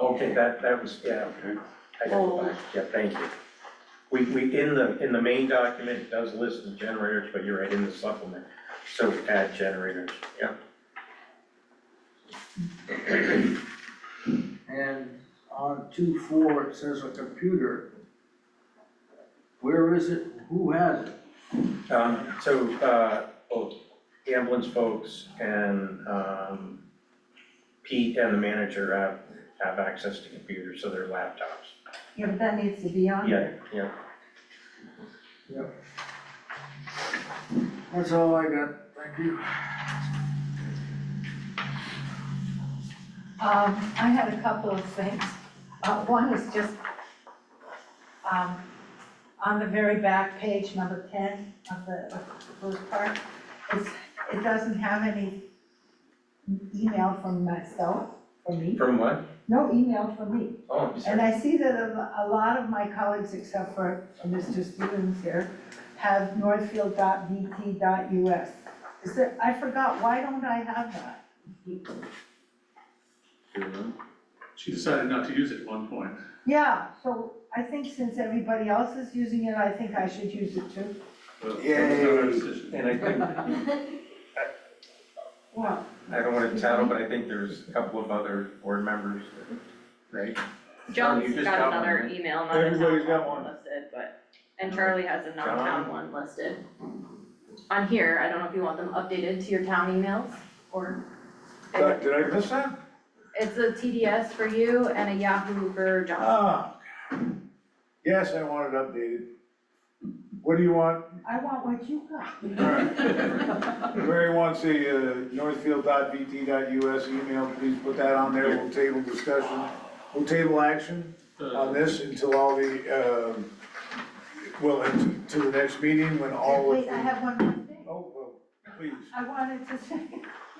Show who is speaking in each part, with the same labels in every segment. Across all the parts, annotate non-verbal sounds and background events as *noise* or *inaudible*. Speaker 1: Okay, that, that was, yeah,
Speaker 2: Okay.
Speaker 1: I got it back, yeah, thank you. We, we, in the, in the main document, it does list the generators, but you're right, in the supplement, so add generators, yeah.
Speaker 3: And on two four, it says a computer. Where is it? Who has it?
Speaker 1: Um, so, uh, both the ambulance folks and, um, Pete and the manager have, have access to computers, so they're laptops.
Speaker 4: Yeah, but that needs to be on
Speaker 1: Yeah,
Speaker 4: there.
Speaker 1: yeah,
Speaker 3: That's all I got, thank you.
Speaker 4: Um, I had a couple of things. Uh, one is just, um, on the very back page, number ten of the, of the first part, it's, it doesn't have any email from myself, from me,
Speaker 1: from what?
Speaker 4: no email from me.
Speaker 1: Oh, I'm
Speaker 4: And
Speaker 1: sorry.
Speaker 4: I see that a a lot of my colleagues, except for Mr. Stevens here, have northfield.vt.us. Is there, I forgot, why don't I have that?
Speaker 5: She decided not to use it at one point.
Speaker 4: Yeah, so I think since everybody else is using it, I think I should use it too.
Speaker 5: but that was not our
Speaker 3: Yay.
Speaker 5: decision. *laughs*
Speaker 1: And I think,
Speaker 4: Well,
Speaker 1: I don't wanna tattle, but I think there's a couple of other board members, right? John, you
Speaker 6: John's
Speaker 1: just
Speaker 6: got
Speaker 1: got one,
Speaker 6: another
Speaker 1: right?
Speaker 6: email, not a
Speaker 2: Everybody's
Speaker 6: town
Speaker 2: got
Speaker 6: one
Speaker 2: one.
Speaker 6: listed, but, and Charlie has a
Speaker 1: John.
Speaker 6: non-town one listed. On here, I don't know if you want them updated to your town emails, or
Speaker 2: Did did I miss that?
Speaker 6: it's a TDS for you and a Yahoo for John.
Speaker 2: Ah. Yes, I want it updated. What do you want?
Speaker 4: I want what you got.
Speaker 2: Mary wants the uh, northfield.vt.us email, please put that on there, we'll table discussion. We'll table action
Speaker 5: Uh,
Speaker 2: on
Speaker 5: The-
Speaker 2: this until all the, um, well, and to the next meeting when all of
Speaker 4: Wait,
Speaker 2: the.
Speaker 4: I have one more thing.
Speaker 2: Oh, well, please.
Speaker 4: I wanted to say,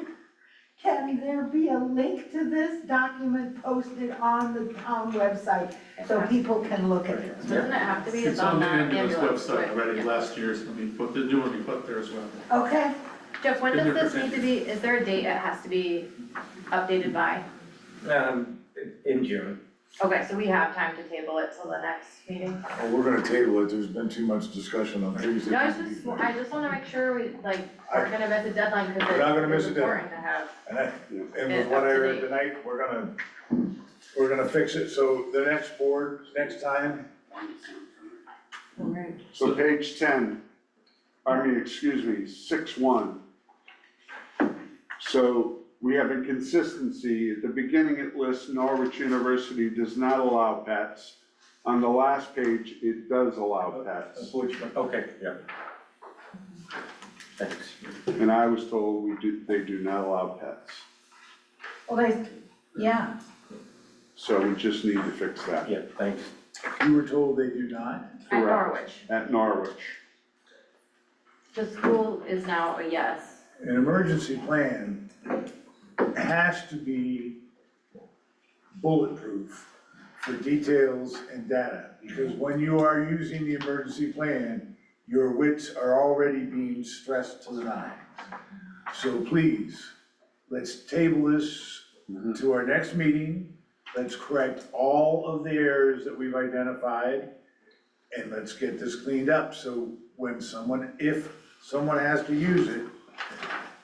Speaker 4: *laughs* can there be a link to this document posted on the town website so people can look at it?
Speaker 6: Doesn't it have to be,
Speaker 5: It's
Speaker 6: it's on
Speaker 5: on the
Speaker 6: the
Speaker 5: ambulance
Speaker 6: ambulance,
Speaker 5: website
Speaker 6: right?
Speaker 5: already
Speaker 6: Yeah.
Speaker 5: last year, so I mean, put the new one, we put there as well.
Speaker 4: Okay,
Speaker 6: Jeff, when
Speaker 5: Been
Speaker 6: does
Speaker 5: there
Speaker 6: this
Speaker 5: for
Speaker 6: need to be, is there a date it has to be updated by?
Speaker 1: Um, in June,
Speaker 6: Okay, so we have time to table it till the next meeting.
Speaker 2: Well, Oh, We're gonna table it, there's been too much discussion on things
Speaker 6: No, I
Speaker 2: that.
Speaker 6: was just, I just wanna make sure we, like,
Speaker 2: I-
Speaker 6: we're gonna miss a deadline, cause
Speaker 2: We're not gonna miss
Speaker 6: it's it's
Speaker 2: a
Speaker 6: important to have.
Speaker 2: And I, and with what I heard tonight, we're gonna, we're gonna fix it, so the next board, next time,
Speaker 7: So page ten, I mean, excuse me, six one. So we have inconsistency. At the beginning, it lists Norwich University does not allow pets. On the last page, it does allow pets.
Speaker 1: Switchman, okay, yeah. Thanks.
Speaker 7: And I was told we do, they do not allow pets.
Speaker 4: well, they, yeah,
Speaker 7: So we just need to fix that
Speaker 1: Yeah, thanks.
Speaker 2: you were told they do not?
Speaker 6: At
Speaker 7: Correct.
Speaker 6: Norwich,
Speaker 7: at Norwich.
Speaker 6: the school is now a yes.
Speaker 2: An emergency plan has to be bulletproof for details and data. Because when you are using the emergency plan, your wits are already being stressed to the nine. So please, let's table this to our next meeting. Let's correct all of the errors that we've identified. And let's get this cleaned up, so when someone, if someone has to use it,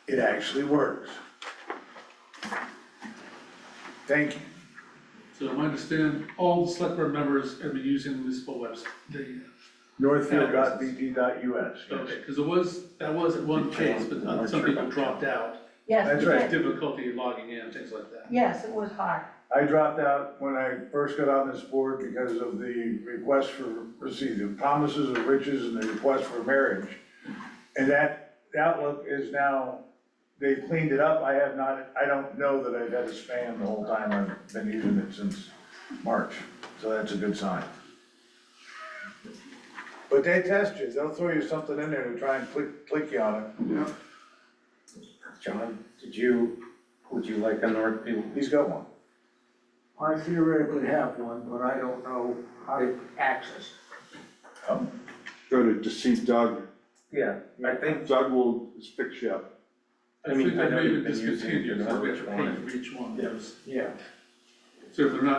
Speaker 2: it actually works. Thank you.
Speaker 5: So I understand all the select board members have been using the municipal website, the,
Speaker 2: Northfield.bp.us.
Speaker 5: okay, because it was, that was at one case, but uh, some people dropped out.
Speaker 4: yes,
Speaker 2: That's
Speaker 4: they
Speaker 2: right.
Speaker 4: did.
Speaker 5: Difficulty logging in, things like that.
Speaker 4: Yes, it was hard.
Speaker 2: I dropped out when I first got on this board because of the request for, see, the promises of riches and the request for marriage. And that, the outlook is now, they've cleaned it up. I have not, I don't know that I've had a spam the whole time. I've been using it since March, so that's a good sign. But they test you. They'll throw you something in there to try and click, click you on it.
Speaker 1: John, did you, would you like a Northfield?
Speaker 2: He's got one.
Speaker 3: I theoretically have one, but I don't know how to access.
Speaker 2: Oh,
Speaker 7: Go to deceive Doug.
Speaker 1: Yeah, I think,
Speaker 7: Doug will fix you up.
Speaker 1: I mean,
Speaker 5: think
Speaker 1: I
Speaker 5: that
Speaker 1: know
Speaker 5: may have
Speaker 1: you've been using
Speaker 5: discontinued,
Speaker 1: your
Speaker 5: so we have
Speaker 1: Norwich
Speaker 5: to
Speaker 1: one.
Speaker 5: pay for each one,
Speaker 1: Yeah.
Speaker 5: there's,
Speaker 1: yeah.
Speaker 5: so if they're not